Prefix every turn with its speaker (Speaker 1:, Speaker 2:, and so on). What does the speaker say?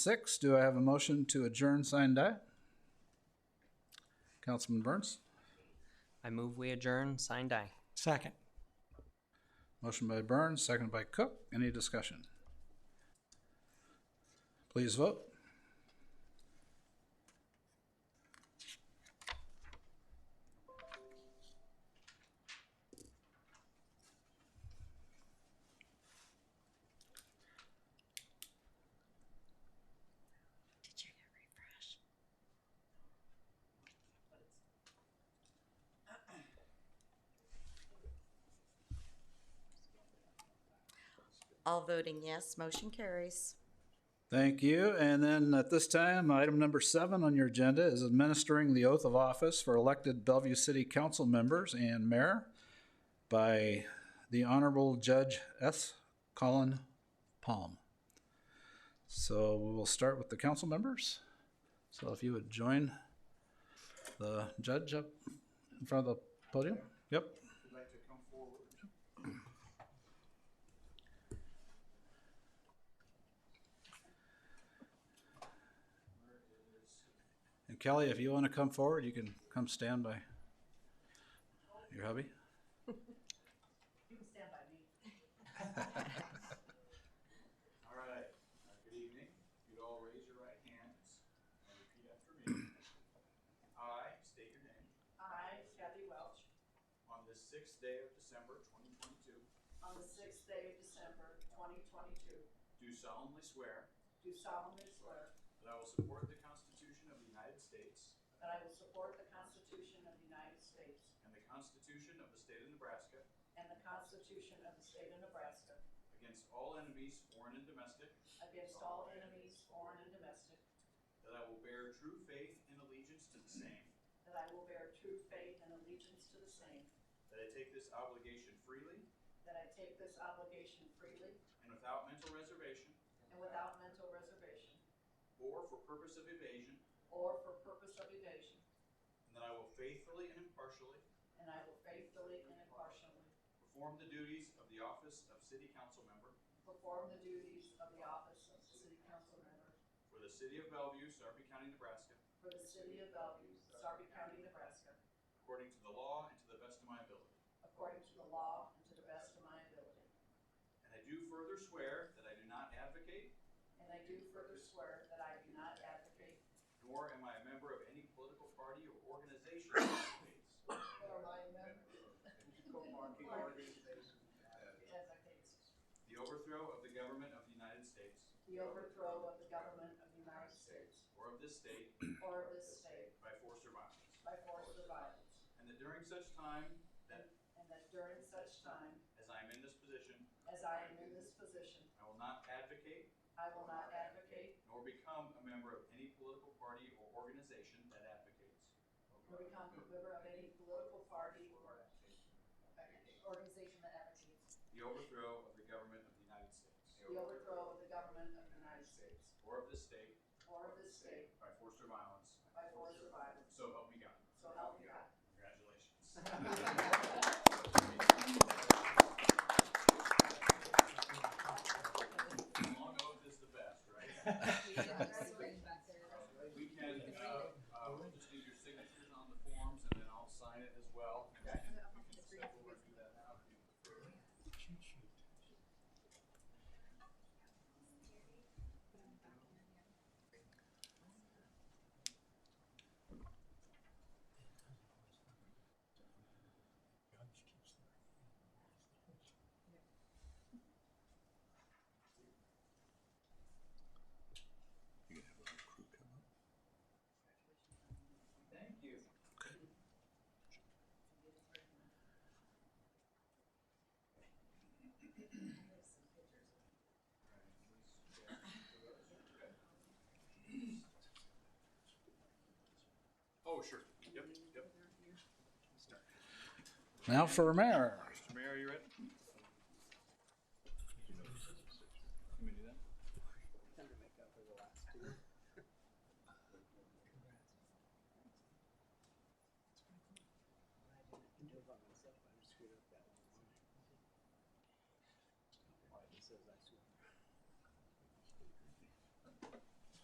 Speaker 1: six. Do I have a motion to adjourn, sign, die? Councilman Burns?
Speaker 2: I move we adjourn, sign die.
Speaker 3: Second.
Speaker 1: Motion by Burns, seconded by Cook. Any discussion? Please vote.
Speaker 4: Did you hit refresh? All voting yes, motion carries.
Speaker 1: Thank you. And then at this time, item number seven on your agenda is administering the oath of office for elected Bellevue City Council members and mayor by the Honorable Judge S. Colin Palm. So we will start with the council members. So if you would join the judge up in front of the podium. Yep. And Kelly, if you want to come forward, you can come stand by your hubby.
Speaker 5: All right, Uh, good evening. If you'd all raise your right hands and repeat after me. I state your name,
Speaker 6: I, Kathy Welch,
Speaker 5: on this sixth day of December twenty twenty-two,
Speaker 6: on the sixth day of December, twenty twenty-two,
Speaker 5: do solemnly swear
Speaker 6: do solemnly swear
Speaker 5: that I will support the Constitution of the United States
Speaker 6: that I will support the Constitution of the United States
Speaker 5: and the Constitution of the State of Nebraska
Speaker 6: and the Constitution of the State of Nebraska
Speaker 5: against all enemies, foreign and domestic,
Speaker 6: against all enemies, foreign and domestic,
Speaker 5: that I will bear true faith and allegiance to the same,
Speaker 6: that I will bear true faith and allegiance to the same,
Speaker 5: that I take this obligation freely
Speaker 6: that I take this obligation freely
Speaker 5: and without mental reservation
Speaker 6: and without mental reservation
Speaker 5: or for purpose of evasion,
Speaker 6: or for purpose of evasion,
Speaker 5: and that I will faithfully and impartially
Speaker 6: and I will faithfully and impartially
Speaker 5: Perform the duties of the office of city council member
Speaker 6: perform the duties of the office of City Council Member
Speaker 5: for the city of Bellevue, Sarpy County, Nebraska,
Speaker 6: for the City of Bellevue, Sarpy County, Nebraska,
Speaker 5: according to the law and to the best of my ability.
Speaker 6: According to the law and to the best of my ability.
Speaker 5: And I do further swear that I do not advocate,
Speaker 6: And I do further swear that I do not advocate,
Speaker 5: nor am I a member of any political party or organization that advocates
Speaker 6: nor am I a member advocates
Speaker 5: the overthrow of the government of the United States
Speaker 6: the overthrow of the government of the United States
Speaker 5: or of this state
Speaker 6: or of this state
Speaker 5: by force or violence,
Speaker 6: by force or violence,
Speaker 5: and that during such time that,
Speaker 6: and that during such time
Speaker 5: as I am in this position,
Speaker 6: as I am in this position,
Speaker 5: I will not advocate
Speaker 6: I will not advocate
Speaker 5: nor become a member of any political party or organization that advocates
Speaker 6: nor become a member of any political party or organization that advocates
Speaker 5: The overthrow of the government of the United States.
Speaker 6: the overthrow of the government of the United States
Speaker 5: Or of this state
Speaker 6: or of this state
Speaker 5: by force or violence.
Speaker 6: by force or violence.
Speaker 5: So help me God.
Speaker 6: So help me God.
Speaker 5: Congratulations. Long oath is the best, right? We can, uh, uh, we'll just need your signatures on the forms and then I'll sign it as well. We can step over and do that now. if you prefer. Thank you. Oh, sure. Yep, yep.
Speaker 1: Now for mayor.
Speaker 5: Mr. Mayor, are you ready? Can we do that?